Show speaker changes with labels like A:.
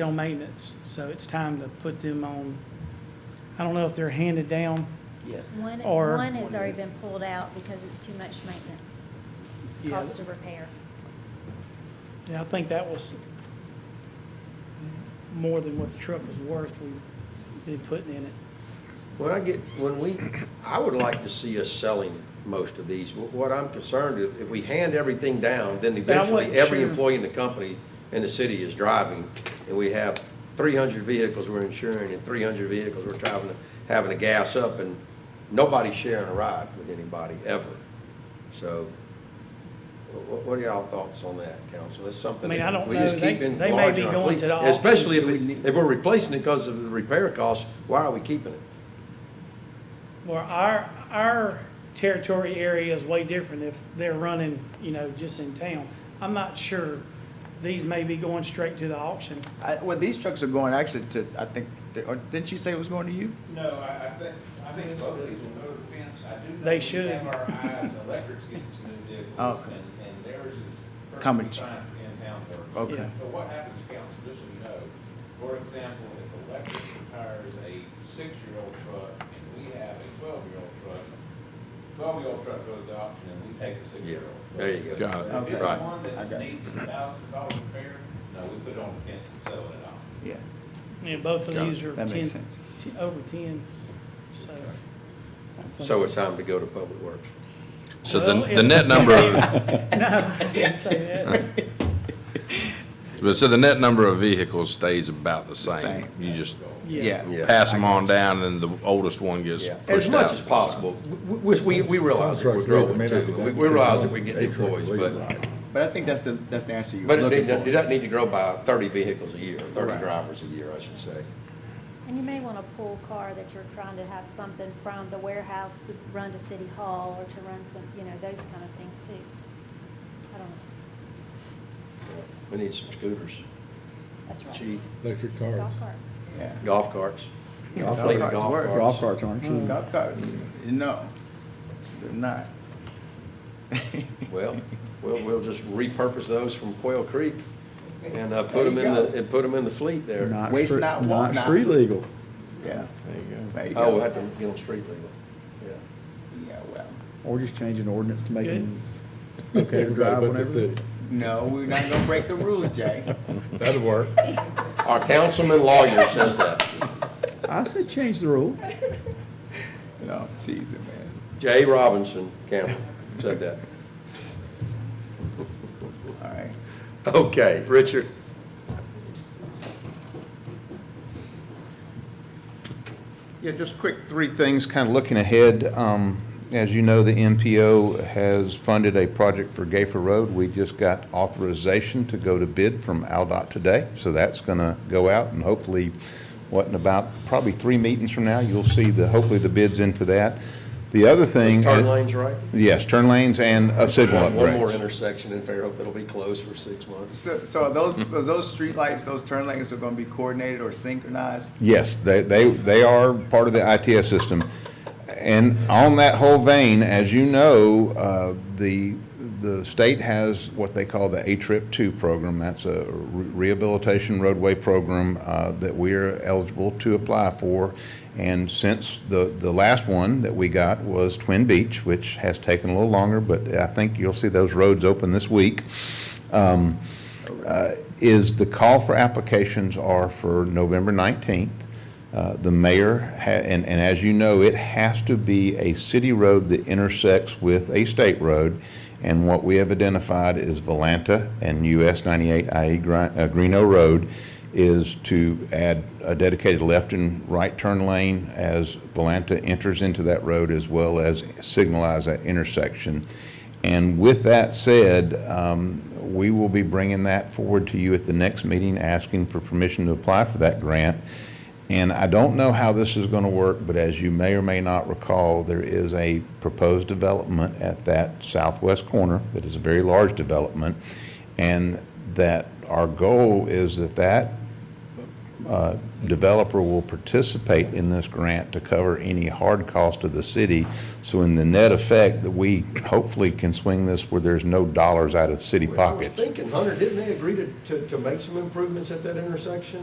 A: on maintenance, so it's time to put them on, I don't know if they're handed down,
B: Yeah.
C: One,
A: Or-
C: one has already
B: One
C: been
B: is-
C: pulled out because it's too much maintenance,
A: Yeah.
C: cost to repair.
A: Yeah, I think that was more than what the truck was worth we've been putting in it.
B: When I get, when we, I would like to see us selling most of these. Wh- What I'm concerned is if we hand everything down, then eventually
A: wasn't
B: every
A: sure.
B: employee in the company and the city is driving, and we have three hundred vehicles we're insuring and three hundred vehicles we're driving, to- having to gas up, and nobody's sharing a ride with anybody ever. So wh- wh- what are y'all thoughts on that, council? That's something.
A: I mean, I don't
B: we just
A: know. They-
B: keep in
A: they may
B: large
A: be
B: in our
A: going
B: fleet,
A: to the auction.
B: Especially if, it- if we're replacing it because of the repair costs, why are we keeping it?
A: Well, our, our territory area is way different if they're running, you know, just in town. I'm not sure. These may be going straight to the auction.
D: I, well, these trucks are going actually to, I think, they- or didn't you say it was going to you?
E: No, I, I think, I think both of these will go to the fence. I do know.
A: They
E: we
A: should.
E: Have our eyes, electrics getting some new vehicles,
D: Oh, Okay.
E: and, and theirs is
D: Coming.
E: perfectly fine for in-town work.
D: Okay.
A: Yeah.
E: But what happens, council, just so you know, for example, if electric retires a six-year-old truck, and we have a twelve-year-old truck, twelve-year-old truck goes to auction, and we take the
B: Yeah,
E: six-year-old.
B: there you go.
E: But
F: Got it.
E: If it's
D: Okay. Right.
E: one
D: I
E: that
D: got
E: needs a thousand dollar repair, no, we put it on the fence and sell it at auction.
D: Yeah.
A: And both of
F: Got it.
A: these are
D: That
A: ten,
D: makes sense.
A: t- over ten, so.
B: So it's time to go to Public Works.
F: So
A: Well,
F: the,
A: if-
F: the net number, of-
A: No, I didn't say that.
F: but so the net number of vehicles stays about the same.
D: Same.
F: You just
A: Yeah.
B: Yeah.
F: pass them on down and the oldest one gets pushed out.
B: As much as possible. We, we, we realize that we're growing too. We we realize that we're getting employees, but,
D: But I think that's the, that's the answer you were
B: but it
D: looking
B: doesn't, it
D: for.
B: doesn't need to grow by thirty vehicles a year, or thirty
D: Right.
B: drivers a year, I should say.
C: And you may want a pool car that you're trying to have something from the warehouse to run to City Hall or to run some, you know, those kind of things too. I don't know,
B: We need some scooters,
C: that's right.
B: cheap,
G: Electric
C: Golf cart.
D: Yeah.
B: golf carts.
D: Golf
B: Fleet of
D: carts
B: golf
D: work.
B: carts.
H: Golf carts aren't cheap.
D: Golf carts, no, they're not.
B: Well, we'll, we'll just repurpose those from Quail Creek and, uh, put
D: There
B: them
D: you
B: in the,
D: go.
B: and put them in the fleet there. There
H: Not
D: Waste
H: stre-
D: not, want not.
H: Not street legal.
D: Yeah,
B: you
D: There you
B: go. Oh,
D: go.
B: we'll have to get them street legal. Yeah.
D: yeah, well,
H: Or just change an ordinance to make
A: Good.
H: it okay to drive whenever.
D: no, we're not gonna break the rules, Jay.
G: That'd work.
B: Our councilman lawyer says that.
H: I said change the rule.
D: No, I'm teasing, man.
B: Jay Robinson Campbell said that.
D: All right.
B: Okay, Richard.
I: Yeah, just quick, three things, kind of looking ahead. Um, As you know, the MPO has funded a project for Gayfer Road. We just got authorization to go to bid from Aldot today, so that's going to go out, and hopefully, what, in about probably three meetings from now, you'll see the, hopefully, the bid's in for that. The other thing.
B: Those turn lanes right?
I: Yes, turn lanes and uh, signal upgrades.
B: One more intersection in Fairhope that'll be closed for six months.
D: So, so are those, are those streetlights, those turn lanes are gonna be coordinated or synchronized?
I: Yes, they, they, they are part of the ITS system. And on that whole vein, as you know, uh, the, the state has what they call the A-Trip Two program. That's a re- rehabilitation roadway program, uh, that we're eligible to apply for. And since the, the last one that we got was Twin Beach, which has taken a little longer, but I think you'll see those roads open this week is the call for applications are for November 19th. Uh, The mayor, ha- and, and as you know, it has to be a city road that intersects with a state road. And what we have identified is Volanta and US 98 IE Gre- uh, Greeno Road is to add a dedicated left and right turn lane as Volanta enters into that road as well as signalize that intersection. And with that said, um, we will be bringing that forward to you at the next meeting, asking for permission to apply for that grant. And I don't know how this is going to work, but as you may or may not recall, there is a proposed development at that southwest corner that is a very large development. And that our goal is that that uh, developer will participate in this grant to cover any hard cost of the city. So in the net effect, that we hopefully can swing this where there's no dollars out of city
B: I was
I: pockets.
B: thinking, Hunter, didn't they agree to, to, to make some improvements at that intersection?